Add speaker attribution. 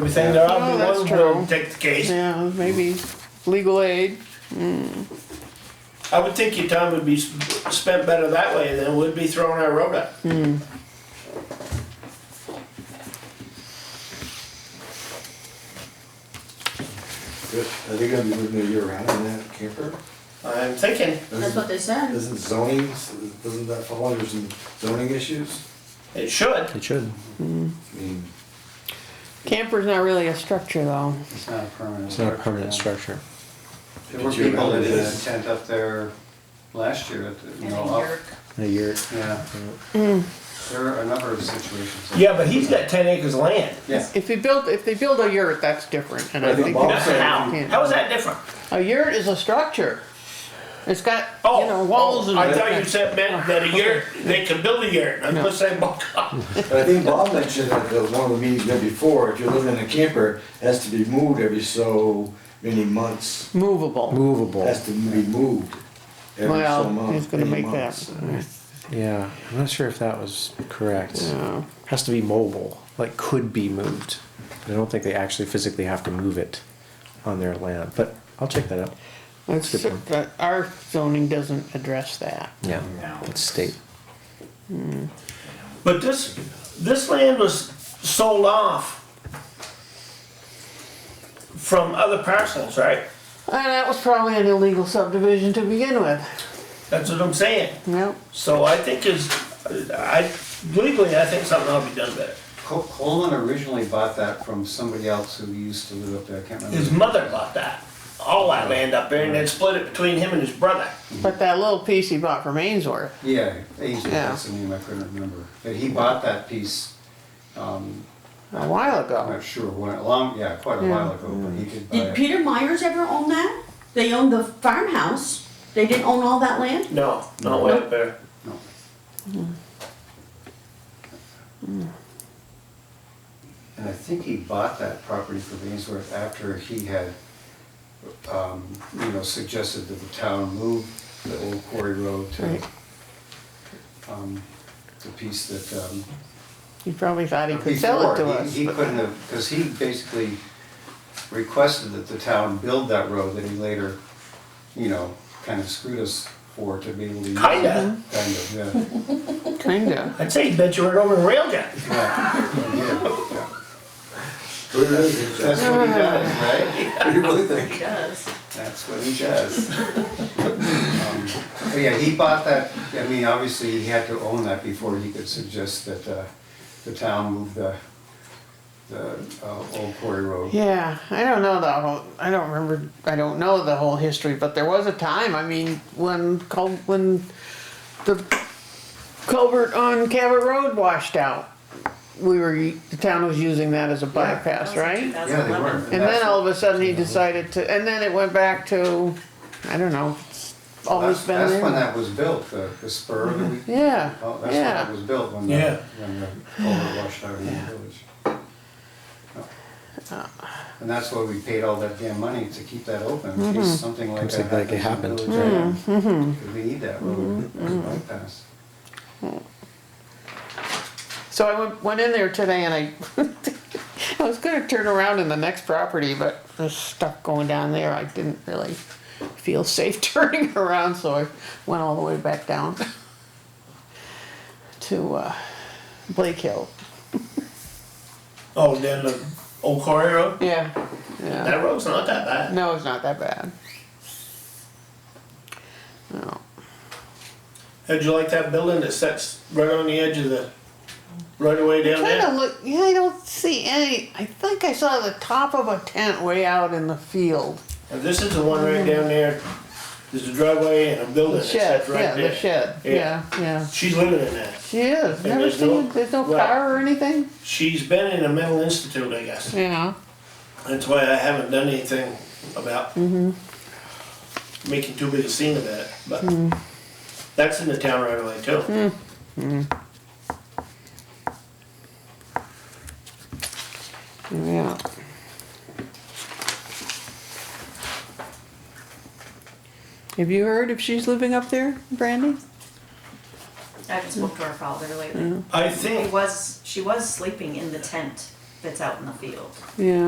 Speaker 1: They're saying there are
Speaker 2: Oh,
Speaker 1: the
Speaker 2: that's
Speaker 1: ones who
Speaker 2: true.
Speaker 1: will take the case.
Speaker 2: Yeah, maybe legal aid.
Speaker 1: I would think your time would be s- spent better that way than it would be throwing our road up.
Speaker 3: Good. Are they gonna be moving it year round in that camper?
Speaker 1: I'm thinking
Speaker 4: That's what they said.
Speaker 3: Isn't zoning, doesn't that fall under some zoning issues?
Speaker 1: it should.
Speaker 5: It should.
Speaker 3: I mean,
Speaker 2: Camper's not really a structure though.
Speaker 6: It's not a permanent.
Speaker 5: It's not a permanent structure.
Speaker 6: There were
Speaker 3: Did you
Speaker 6: people that
Speaker 3: remember
Speaker 6: did a
Speaker 3: that?
Speaker 6: tent up there last year at the, you
Speaker 4: And
Speaker 6: know,
Speaker 4: a
Speaker 6: up.
Speaker 4: yerk.
Speaker 5: A year.
Speaker 6: Yeah.
Speaker 5: Mm.
Speaker 6: There are a number of situations.
Speaker 1: Yeah, but he's got ten acres of land.
Speaker 6: Yeah.
Speaker 2: If you build, if they build a yurt, that's different. And
Speaker 3: But
Speaker 2: I
Speaker 3: I think
Speaker 2: think
Speaker 3: Bob
Speaker 1: That's
Speaker 3: said-
Speaker 1: how.
Speaker 2: Yeah.
Speaker 1: How is that different?
Speaker 2: a yurt is a structure. It's got
Speaker 1: Oh,
Speaker 2: you know walls
Speaker 1: oh,
Speaker 2: and.
Speaker 1: I thought you said meant that a yurt, they could build a yurt. I'm just saying, bulk up.
Speaker 3: But I think Bob mentioned at the, one of the meetings there before, if you're living in a camper, it has to be moved every so many months.
Speaker 2: movable.
Speaker 3: It
Speaker 5: Movable.
Speaker 3: Has to be moved every
Speaker 2: Well,
Speaker 3: so month.
Speaker 2: he's gonna
Speaker 3: many
Speaker 2: make that.
Speaker 3: months.
Speaker 5: Yeah, I'm not sure if that was correct.
Speaker 2: Yeah.
Speaker 5: Has to be mobile, like could be moved. I don't think they actually physically have to move it on their land, but I'll check that out.
Speaker 2: That's,
Speaker 5: Good point.
Speaker 2: but our zoning doesn't address that.
Speaker 5: Yeah, it's state.
Speaker 1: But this, this land was sold off from other parcels, right?
Speaker 2: And that was probably an illegal subdivision to begin with.
Speaker 1: That's what I'm saying.
Speaker 2: Yep.
Speaker 1: So I think is, I, legally, I think something ought to be done better.
Speaker 6: Col- Coleman originally bought that from somebody else who used to live up there, I can't remember.
Speaker 1: His mother bought that, all that land up there, and then split it between him and his brother.
Speaker 2: But that little piece he bought from Ainsworth,
Speaker 6: Yeah, Ainsworth,
Speaker 2: Yeah.
Speaker 6: that's the name, I couldn't remember. But he bought that piece, um,
Speaker 2: a while
Speaker 6: I'm
Speaker 2: ago.
Speaker 6: not sure when, a long, yeah, quite a
Speaker 2: Yeah.
Speaker 6: while ago, but he did buy
Speaker 4: Did
Speaker 6: it.
Speaker 4: Peter Myers ever own that? They owned the farmhouse. They didn't own all that land?
Speaker 1: No, no way up there.
Speaker 6: No. And I think he bought that property from Ainsworth after he had, um, you know, suggested that the town move the old quarry road to,
Speaker 2: Right.
Speaker 6: um, the piece that, um,
Speaker 2: He probably thought he could sell it to
Speaker 6: before, he-
Speaker 2: us.
Speaker 6: He
Speaker 2: but-
Speaker 6: couldn't have, because he basically requested that the town build that road that he later, you know, kind of screwed us for to be able to. use it.
Speaker 1: Kinda.
Speaker 6: Kind of, yeah.
Speaker 2: Kinda.
Speaker 1: I'd say he bet you were over in railgun.
Speaker 6: Yeah, yeah.
Speaker 3: Who knows?
Speaker 6: That's what he does, right?
Speaker 3: What do you really think?
Speaker 4: Yes.
Speaker 6: That's what he does. Um, But yeah, he bought that, I mean, obviously, he had to own that before he could suggest that uh, the town move the, the uh, old quarry road.
Speaker 2: Yeah, I don't know the whole, I don't remember, I don't know the whole history, but there was a time, I mean, when Cul, when the culvert on Cabot Road washed out. We were, the town was using that as a bypass, right?
Speaker 6: Yeah, they were.
Speaker 2: And
Speaker 6: that's-
Speaker 2: then all of a sudden he decided to, and then it went back to, I don't know, it's always
Speaker 6: That's-
Speaker 2: been
Speaker 6: That's when
Speaker 2: there.
Speaker 6: that was built, the, the spur that we.
Speaker 2: Yeah,
Speaker 6: Oh, That's when
Speaker 2: yeah.
Speaker 6: that was built, when
Speaker 1: Yeah.
Speaker 6: the, when the culvert washed out in the village.
Speaker 2: Uh.
Speaker 6: And that's why we paid all that damn money to keep that open, in
Speaker 2: Mm-hmm.
Speaker 6: case something like
Speaker 5: Something
Speaker 6: that
Speaker 5: like it
Speaker 6: happens in the village. Because we need that road
Speaker 2: Mm-hmm.
Speaker 6: as a bypass.
Speaker 2: So I went, went in there today and I, I was gonna turn around in the next property, but there's stuff going down there, I didn't really feel safe turning around, so I went all the way back down to, uh, Blake Hill.
Speaker 1: Oh, then the old quarry road?
Speaker 2: Yeah, yeah.
Speaker 1: That road's not that bad.
Speaker 2: No, it's not that bad. No.
Speaker 1: How'd you like that building that sets right on the edge of the, right away down
Speaker 2: Trying to
Speaker 1: there?
Speaker 2: look, yeah, I don't see any. I think I saw the top of a tent way out in the field.
Speaker 1: And this is the one right down there, there's a driveway and a building
Speaker 2: The
Speaker 1: Oh, that
Speaker 2: shed,
Speaker 1: sets
Speaker 2: yeah,
Speaker 1: right
Speaker 2: the
Speaker 1: there.
Speaker 2: shed, yeah, yeah.
Speaker 1: She's living in that.
Speaker 2: She is. Never
Speaker 1: there's no-
Speaker 2: seen, there's no
Speaker 1: right.
Speaker 2: car or anything?
Speaker 1: She's been in a mental institute, I guess.
Speaker 2: Yeah.
Speaker 1: That's why I haven't done anything about making too big a scene of that. But that's in the town right away too.
Speaker 2: Yeah. Have you heard if she's living up there, Brandy?
Speaker 7: I haven't spoke to her father lately.
Speaker 1: I
Speaker 7: She
Speaker 1: think
Speaker 7: was, she was sleeping in the tent
Speaker 8: that's out in the field.
Speaker 7: yeah.